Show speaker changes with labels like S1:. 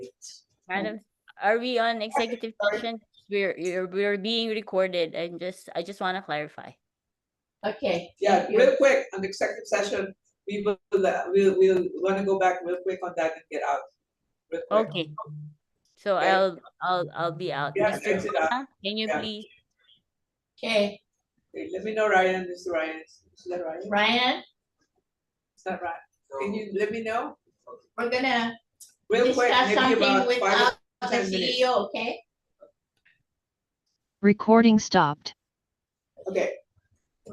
S1: Madam, are we on executive session? We're, you're- we're being recorded and just, I just want to clarify.
S2: Okay.
S3: Yeah,
S2: thank you.
S3: real quick, on the executive session, we will, uh, we'll, we'll wanna go back real quick on that and get out. real quick.
S1: Okay. So
S3: Okay.
S1: I'll, I'll, I'll be out.
S3: Yeah,
S1: Mr.
S3: exit out.
S1: Rosa, Can you
S3: Yeah.
S1: please,
S2: Okay,
S3: Okay, Let me know, Ryan, Mr. Ryan, is that Ryan?
S2: Ryan,
S3: It's not Ryan, can you let me know?
S2: we're gonna
S3: Real quick,
S2: discuss
S3: maybe
S2: something
S3: about five,
S2: without the
S3: 10
S2: E
S3: minutes.
S2: CEO, okay?
S4: Recording stopped.
S3: okay,